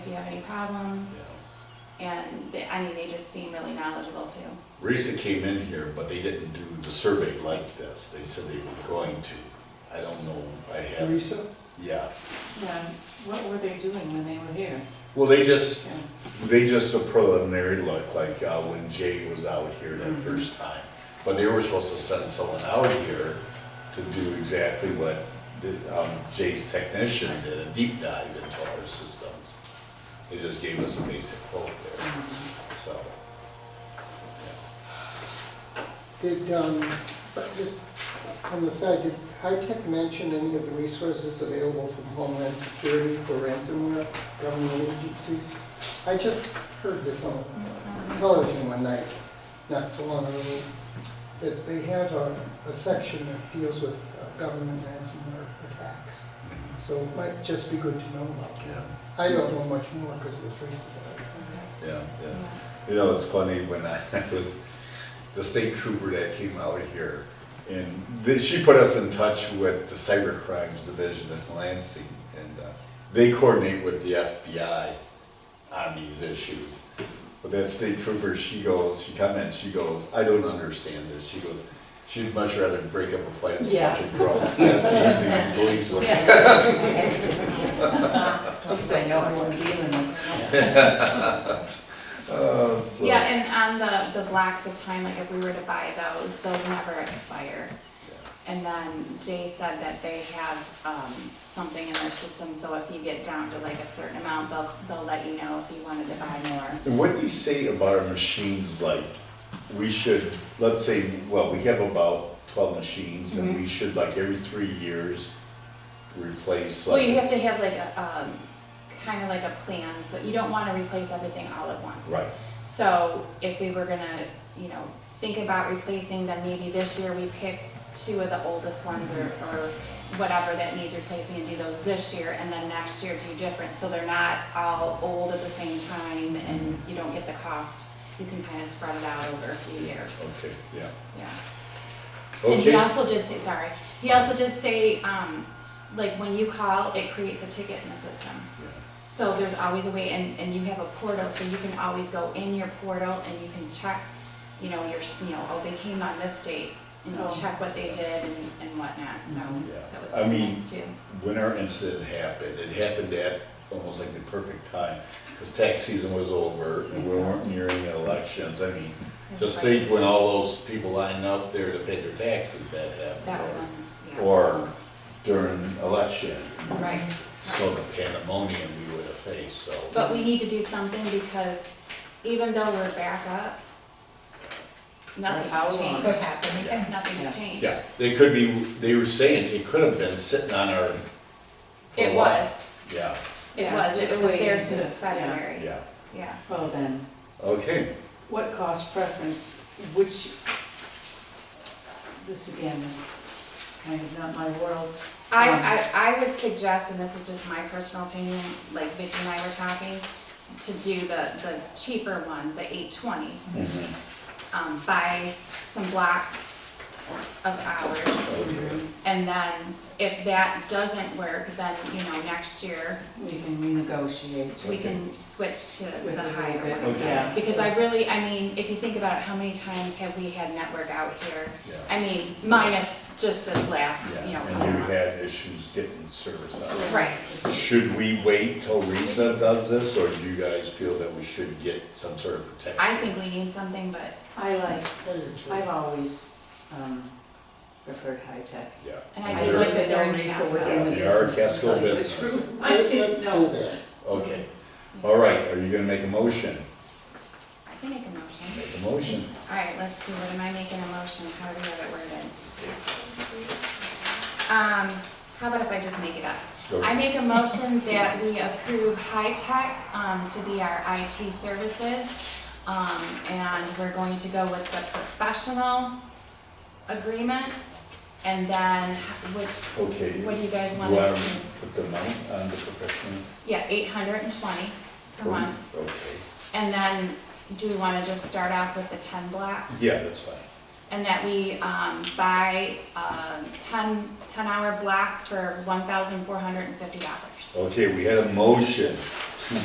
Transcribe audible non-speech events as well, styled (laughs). you have any problems? And they, I mean, they just seem really knowledgeable too. Risa came in here, but they didn't do the survey like this. They said they were going to. I don't know, I have, Teresa? yeah. Yeah, what were they doing when they were here? Well, they just, Yeah. they just a preliminary look, like uh, when Jay was out here that Mm-hmm. first time. But they were supposed to send someone out here to do exactly what the, um, Jay's technician did, a deep dive into our systems. They just gave us a basic quote there, Mm-hmm. so. yeah. Did, um, but just on the side, did High Tech mention any of the resources available from Homeland Security for ransomware government agencies? I just heard this on television one night, not so long ago, that they have a, a section that deals with uh, government ransomware attacks. So it might just be good to know about that. Yeah. I don't know much more because it was recent that I saw that. Yeah, yeah. You know, it's funny, when I (laughs) was, the state trooper that came out here, and th- she put us in touch with the Cyber Crimes Division in Lansing, and uh, they coordinate with the FBI on these issues. But that state trooper, she goes, she comments, she goes, I don't understand this. She goes, she'd much rather break up a fight with a bunch of drunks. That's easy, than police work. I'll say no more dealing with it. Uh, so- Yeah, and on the, the blocks of time, like if we were to buy those, those never expire. And then Jay said that they have, um, something in their system, so if you get down to like a certain amount, they'll, they'll let you know if you wanted to buy more. And what do you say about our machines, like, we should, let's say, well, we have about twelve machines, and Mm-hmm. we should, like, every three years, replace, Well, you like, have to have like a, um, kind of like a plan, so you don't wanna replace everything all at once. right, So if we were gonna, you know, think about replacing, then maybe this year we pick two of the oldest ones or, or whatever that needs replacing and do those this year, and then next year do different, so they're not all old at the same time and you don't get the cost. You can kind of spread it out over a few years, okay, yeah, yeah. And he okay, also did say, sorry, he also did say, um, like when you call, it creates a ticket in the system. yeah, So there's always a way, and, and you have a portal, so you can always go in your portal and you can check, you know, your, s- you know, oh, they came on this date, and Oh. check what they did and, and whatnot, so Yeah. that was I pretty mean- nice too. when our incident happened, it happened at almost like the perfect time, because tax season was over, and we weren't nearing elections, I mean, just think when all those people lined up there to pay their taxes, that happened. That or- one, yeah. Or during election, Right, so the pandemonium we would have faced, so. but we need to do something because even though we're back up, How long? nothing's changed. Yeah. Yeah. Nothing's changed. Yeah, they could be, they were saying it could have been sitting on our. for a It while. was, Yeah, it Yeah, was, it just was there waiting to- since yeah. February, yeah, yeah. Well then, okay, what cost preference, which, this again is kind of not my world. I, I, I would suggest, and this is just my personal opinion, like Vicki and I were talking, to do the, the cheaper one, the eight twenty. Um, buy some blocks of hours, okay, and then if that doesn't work, then, you know, next year, We can renegotiate. we can switch to With the a little higher bit, one. yeah. Because I really, I mean, if you think about it, how many times have we had network out here? yeah. I mean, minus just this last, you know, Yeah, couple and you months. had issues getting service out. of it. Right. Should we wait till Risa does this, or do you guys feel that we should get some sort of protection? I think we need something, but I like, Tell your truth. I've always um, preferred high-tech. Yeah. And I I did They're- like like that that they're in Risa was Casco. in the They are business. Casco to tell you the business. truth. I Let- didn't Let's do know. that. Okay, all right, are you gonna make a motion? I can make a motion. Make a motion. All right, let's see, what am I making a motion, how do we have it worded? Um, how about if I just make it up? Go. I make a motion that we approve high tech, um, to be our IT services. Um, and we're going to go with the professional agreement. And then what, Okay. what do you guys Do want? I put the amount on the professional? Yeah, eight hundred and twenty per month. Okay, And then, do we wanna just start off with the ten blocks? yeah, that's fine. And that we, um, buy, um, 10 10 hour block for one thousand four hundred and fifty dollars. Okay, we had a motion